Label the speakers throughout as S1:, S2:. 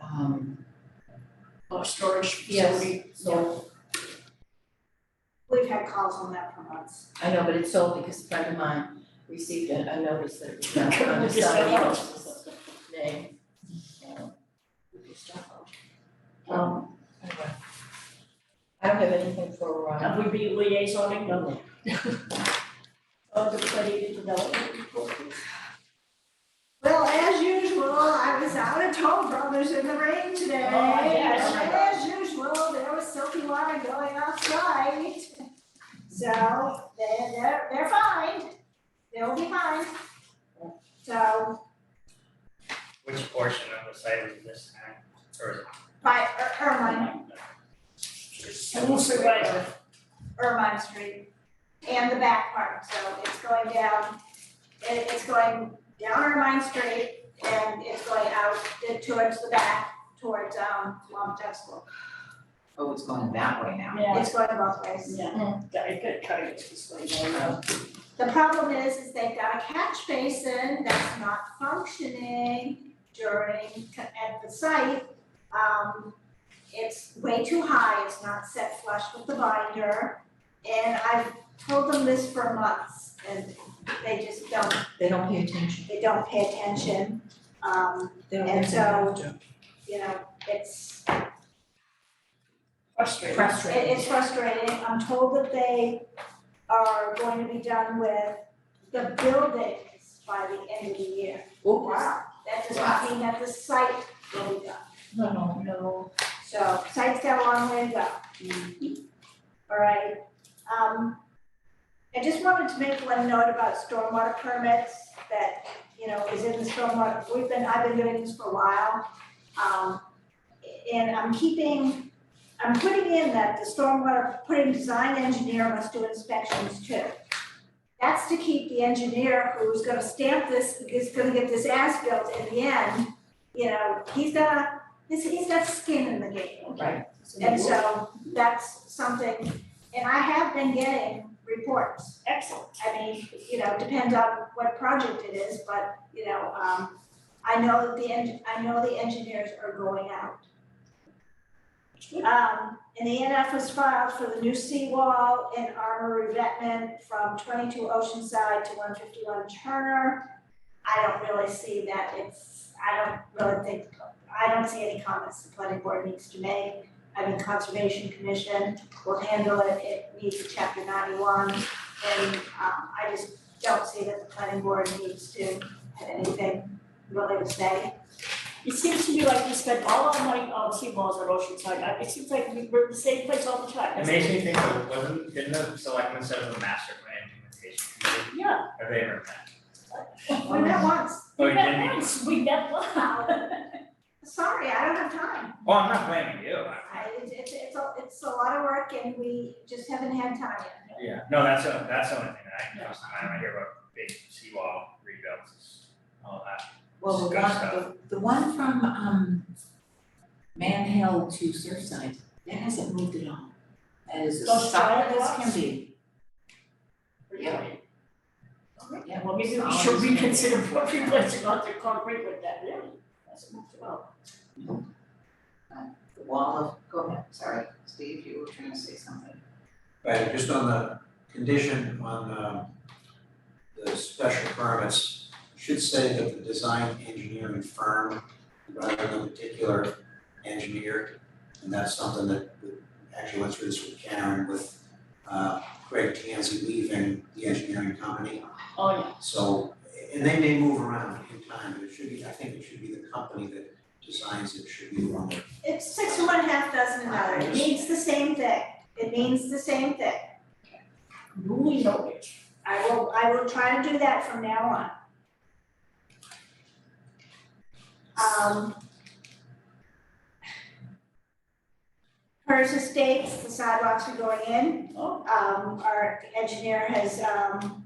S1: um, water storage
S2: Yes,
S1: facility sold.
S3: We've had calls on that for months.
S2: I know, but it's sold because a friend of mine received a, a notice that it was
S1: We
S2: not under
S1: just said,
S2: somebody
S1: "Oh."
S2: else's name. So, we just don't know. Um, anyway. I don't have anything for, uh,
S1: Have we been liaisoning
S2: no,
S1: of the planning and development report?
S3: Well, as usual, I was out at Toll Brothers in the rain today.
S1: Oh, yes.
S3: And As usual, there was silky water going outside. So they're, they're, they're fine. They'll be fine. So
S4: Which portion of the site is this at, or is it?
S3: by Ir- Irvine,
S1: I will say right.
S3: Irvine Street and the back part. So it's going down, it, it's going down Irvine Street and it's going out towards the back, towards, um, Wampatuck School.
S5: Oh, it's going that way now.
S1: Yeah,
S3: It's going both ways.
S1: yeah, I could cut it this way, you know.
S3: The problem is, is they've got a catch basin that's not functioning during, at the site. Um, it's way too high, it's not set flush with the binder. And I've told them this for months and they just don't,
S2: they don't pay attention,
S3: they don't pay attention. Um,
S2: they don't.
S3: And
S2: think they have
S3: so-
S2: to.
S3: you know, it's,
S1: Frustrating.
S3: It-
S2: Frustrating.
S3: it's frustrating, I'm told that they are going to be done with the buildings by the end of the year.
S2: Oops.
S3: That does not mean that the site will be done,
S2: No, no, no.
S3: so site's got a long way to go. Alright, um, I just wanted to make one note about stormwater permits that, you know, is in the stormwater, we've been, I've been doing this for a while. Um, and I'm keeping I'm putting in that the stormwater, putting design engineer must do inspections too. That's to keep the engineer who's gonna stamp this, is gonna get this as built in the end, you know, he's got, a- he's, he's got skin in the game.
S2: Right.
S3: And so that's something, and I have been getting reports.
S1: Excellent.
S3: I mean, you know, depends on what project it is, but, you know, um, I know that the, en- I know the engineers are going out. Um, and the NF was filed for the new seawall and armor revetment from twenty-two Oceanside to one fifty-one Turner. I don't really see that, it's, I don't really think, I don't see any comments the planning board needs to make. I mean, Conservation Commission will handle it, it needs a chapter ninety-one. And um I just don't see that the planning board needs to have anything really to say.
S1: It seems to me like we spend all our money on seawalls at Oceanside, I- Uh, it seems like we- we're in the same place all the time.
S4: It makes me think of, wasn't, didn't the selectmen set up a master plan implementation committee?
S1: Yeah.
S4: Have they ever met?
S3: We met once,
S4: Oh,
S1: We
S4: you
S1: met
S4: didn't?
S1: once, we met once.
S3: sorry, I don't have time.
S4: Well, Oh, I'm not blaming you, I-
S3: I it's it's it's a it's a lot of work and we just haven't had time yet.
S4: yeah, no, that's, the- that's the only thing that I, comes to mind when I hear about big seawall rebuilds, is all that.
S5: Well, the one, the, the one from, um, Man Hill to Surfside, that hasn't moved at all. As
S1: Those
S5: solid
S1: giant
S5: as can
S1: rocks?
S5: be,
S1: Really?
S5: yeah.
S1: Well, maybe we
S5: solid
S1: should
S5: as can be.
S1: reconsider what we went about the concrete with that, really, that's a move well.
S5: The wall of, go ahead, sorry, Steve, you were trying to say something.
S6: Right, just on the condition on um, the special permits, should say that the design engineering firm rather than a particular engineer. And that's something that we actually went through this with Karen with uh, Greg Tansey leaving the engineering company.
S1: Oh, yeah,
S6: So, and they may move around in time, but it should be, I think it should be the company that designs it should be the one that
S3: It's six of one, half dozen of another, it means the same thing, it means the same thing.
S1: newly noted.
S3: I will I will try to do that from now on. Um. Hers estates, the sidewalks are going in,
S1: Oh,
S3: um, our engineer has, um.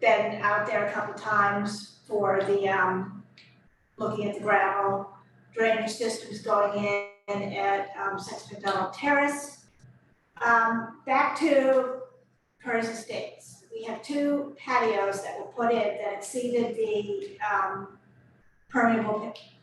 S3: Been out there a couple times for the, um, looking at the gravel, drainage systems going in at, um, Six McDonald Terrace. Um, back to Hers Estates. We have two patios that were put in that exceeded the um permeable